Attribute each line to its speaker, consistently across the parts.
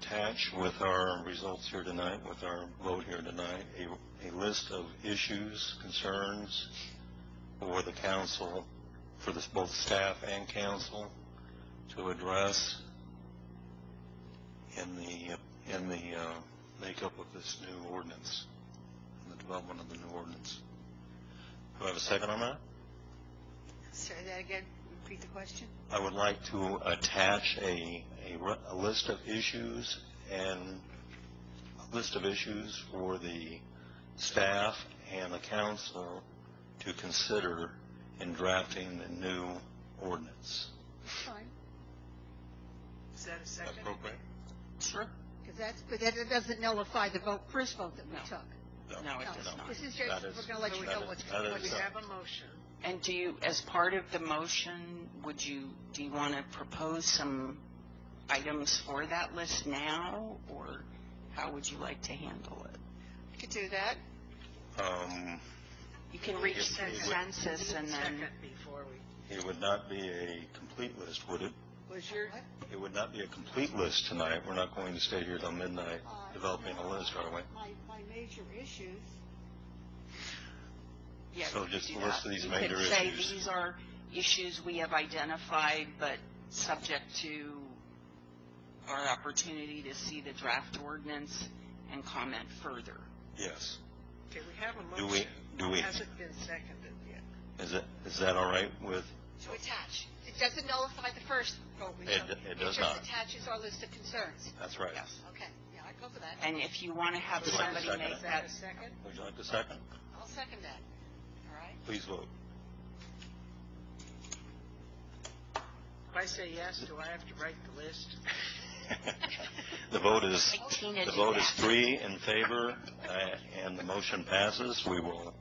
Speaker 1: attach with our results here tonight, with our vote here tonight, a, a list of issues, concerns for the council, for this, both staff and council to address in the, uh, in the, uh, makeup of this new ordinance, in the development of the new ordinance. Do I have a second on that?
Speaker 2: Say that again, repeat the question?
Speaker 1: I would like to attach a, a, re- a list of issues and, a list of issues for the staff and the council to consider in drafting the new ordinance.
Speaker 2: Fine.
Speaker 3: Is that a second?
Speaker 1: Appropriate?
Speaker 4: Sure.
Speaker 2: Because that's, but that doesn't nullify the vote, first vote that we
Speaker 4: No.
Speaker 2: took.
Speaker 4: No, it
Speaker 2: No,
Speaker 4: does not.
Speaker 2: This is
Speaker 1: That
Speaker 2: just,
Speaker 1: is-
Speaker 2: we're gonna let you
Speaker 1: that
Speaker 2: know
Speaker 1: is-
Speaker 2: what's,
Speaker 1: that is
Speaker 2: what's
Speaker 3: We
Speaker 1: not-
Speaker 3: have a motion.
Speaker 4: And do you, as part of the motion, would you, do you want to propose some items for that list now, or how would you like to handle it?
Speaker 2: you could do that.
Speaker 1: Um,
Speaker 4: You can reach
Speaker 1: Yes, we would.
Speaker 4: consensus and then,
Speaker 3: Second before we,
Speaker 1: it would not be a complete list, would it?
Speaker 3: was your,
Speaker 2: What?
Speaker 1: It would not be a complete list tonight. We're not going to stay here till midnight
Speaker 2: Uh,
Speaker 1: developing a list, are we?
Speaker 2: My, my major issues,
Speaker 4: yeah.
Speaker 1: So
Speaker 4: we could
Speaker 1: just
Speaker 4: do
Speaker 1: the list
Speaker 4: that.
Speaker 1: of these
Speaker 4: You could
Speaker 1: major
Speaker 4: say
Speaker 1: issues.
Speaker 4: these are issues we have identified, but subject to our opportunity to see the draft ordinance and comment further.
Speaker 1: Yes.
Speaker 3: okay, we have a
Speaker 1: Do
Speaker 3: motion.
Speaker 1: we, do we,
Speaker 3: Hasn't been seconded yet.
Speaker 1: is it, is that all right with,
Speaker 2: to attach. It doesn't nullify the first vote we
Speaker 1: It-
Speaker 2: took.
Speaker 1: it does not.
Speaker 2: just attaches our list of concerns.
Speaker 1: that's right.
Speaker 4: Yes.
Speaker 2: Okay, yeah, I'd go for that.
Speaker 4: And if you want to have
Speaker 1: Would you like to
Speaker 4: somebody
Speaker 1: second
Speaker 4: make
Speaker 1: it?
Speaker 3: Is that
Speaker 4: that
Speaker 3: a second?
Speaker 1: Would you like a second?
Speaker 2: I'll second that. All right?
Speaker 1: Please vote.
Speaker 3: If I say yes, do I have to write the list?
Speaker 1: The vote is,
Speaker 4: Like Tina
Speaker 1: the
Speaker 4: did
Speaker 1: vote is
Speaker 4: that.
Speaker 1: three in favor, uh, and the motion passes. We will,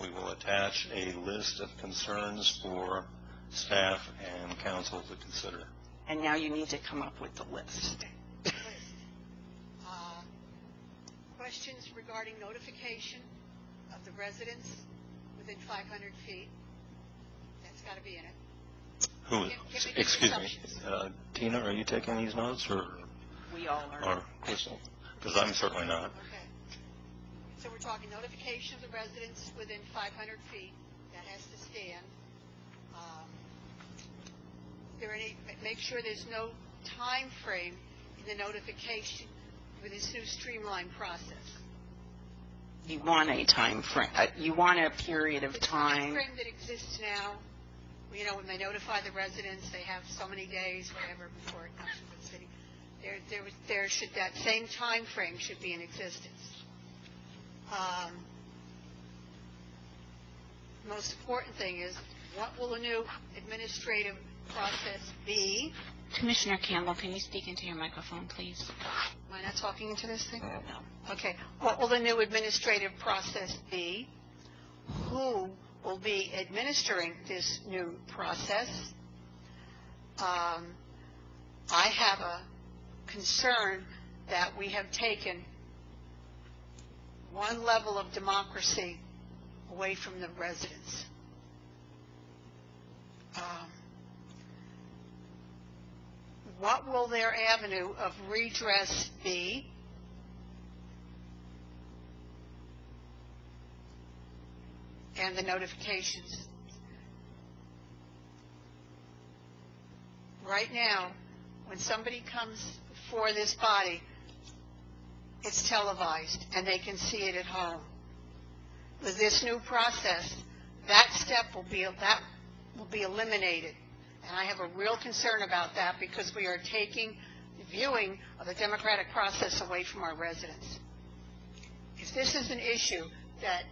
Speaker 1: we will attach a list of concerns for staff and council to consider.
Speaker 4: And now you need to come up with the list.
Speaker 2: Uh, Questions regarding notification of the residents within 500 feet? That's got to be in it.
Speaker 1: Who,
Speaker 2: Give- give me the
Speaker 1: excuse me,
Speaker 2: instructions.
Speaker 1: uh, Tina, are you taking these notes, or,
Speaker 4: We all
Speaker 1: or
Speaker 4: are.
Speaker 1: Crystal? Because I'm certainly not.
Speaker 2: Okay. So we're talking notification of the residents within 500 feet, that has to stand. Um, Is there any, ma- make sure there's no time frame in the notification with this new streamlined process.
Speaker 4: You want a time frame, uh, you want a period of
Speaker 2: The
Speaker 4: time.
Speaker 2: timeframe that exists now, you know, when they notify the residents, they have so many days, whatever, before it comes to the city. There, there was, there should, that same time frame should be in existence. Um, Most important thing is, what will the new administrative process be?
Speaker 5: Commissioner Campbell, can you speak into your microphone, please?
Speaker 2: Am I not talking into this thing?
Speaker 4: No.
Speaker 2: Okay, what will the new administrative process be? Who will be administering this new process? Um, I have a concern that we have taken one level of democracy away from the residents. Um, What will their avenue of redress be? and the notifications. Right now, when somebody comes before this body, it's televised, and they can see it at home. With this new process, that step will be, that will be eliminated. And I have a real concern about that, because we are taking viewing of the democratic process away from our residents. If this is an issue that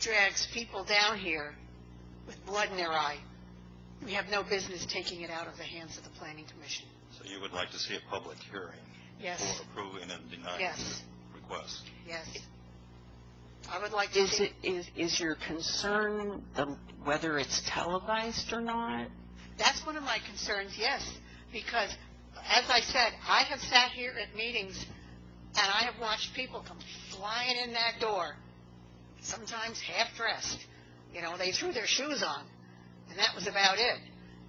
Speaker 2: drags people down here with blood in their eye. We have no business taking it out of the hands of the planning commission.
Speaker 1: So you would like to see a public hearing
Speaker 2: Yes,
Speaker 1: for approving and denying
Speaker 2: yes,
Speaker 1: requests?
Speaker 2: yes. I would like to
Speaker 4: Is
Speaker 2: see,
Speaker 4: it, is, is your concern the- whether it's televised or not?
Speaker 2: that's one of my concerns, yes, because as I said, I have sat here at meetings and I have watched people come flying in that door, sometimes half-dressed. You know, they threw their shoes on, and that was about it.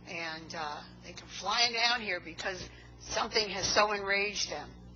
Speaker 2: And uh, they come flying down here because something has so enraged them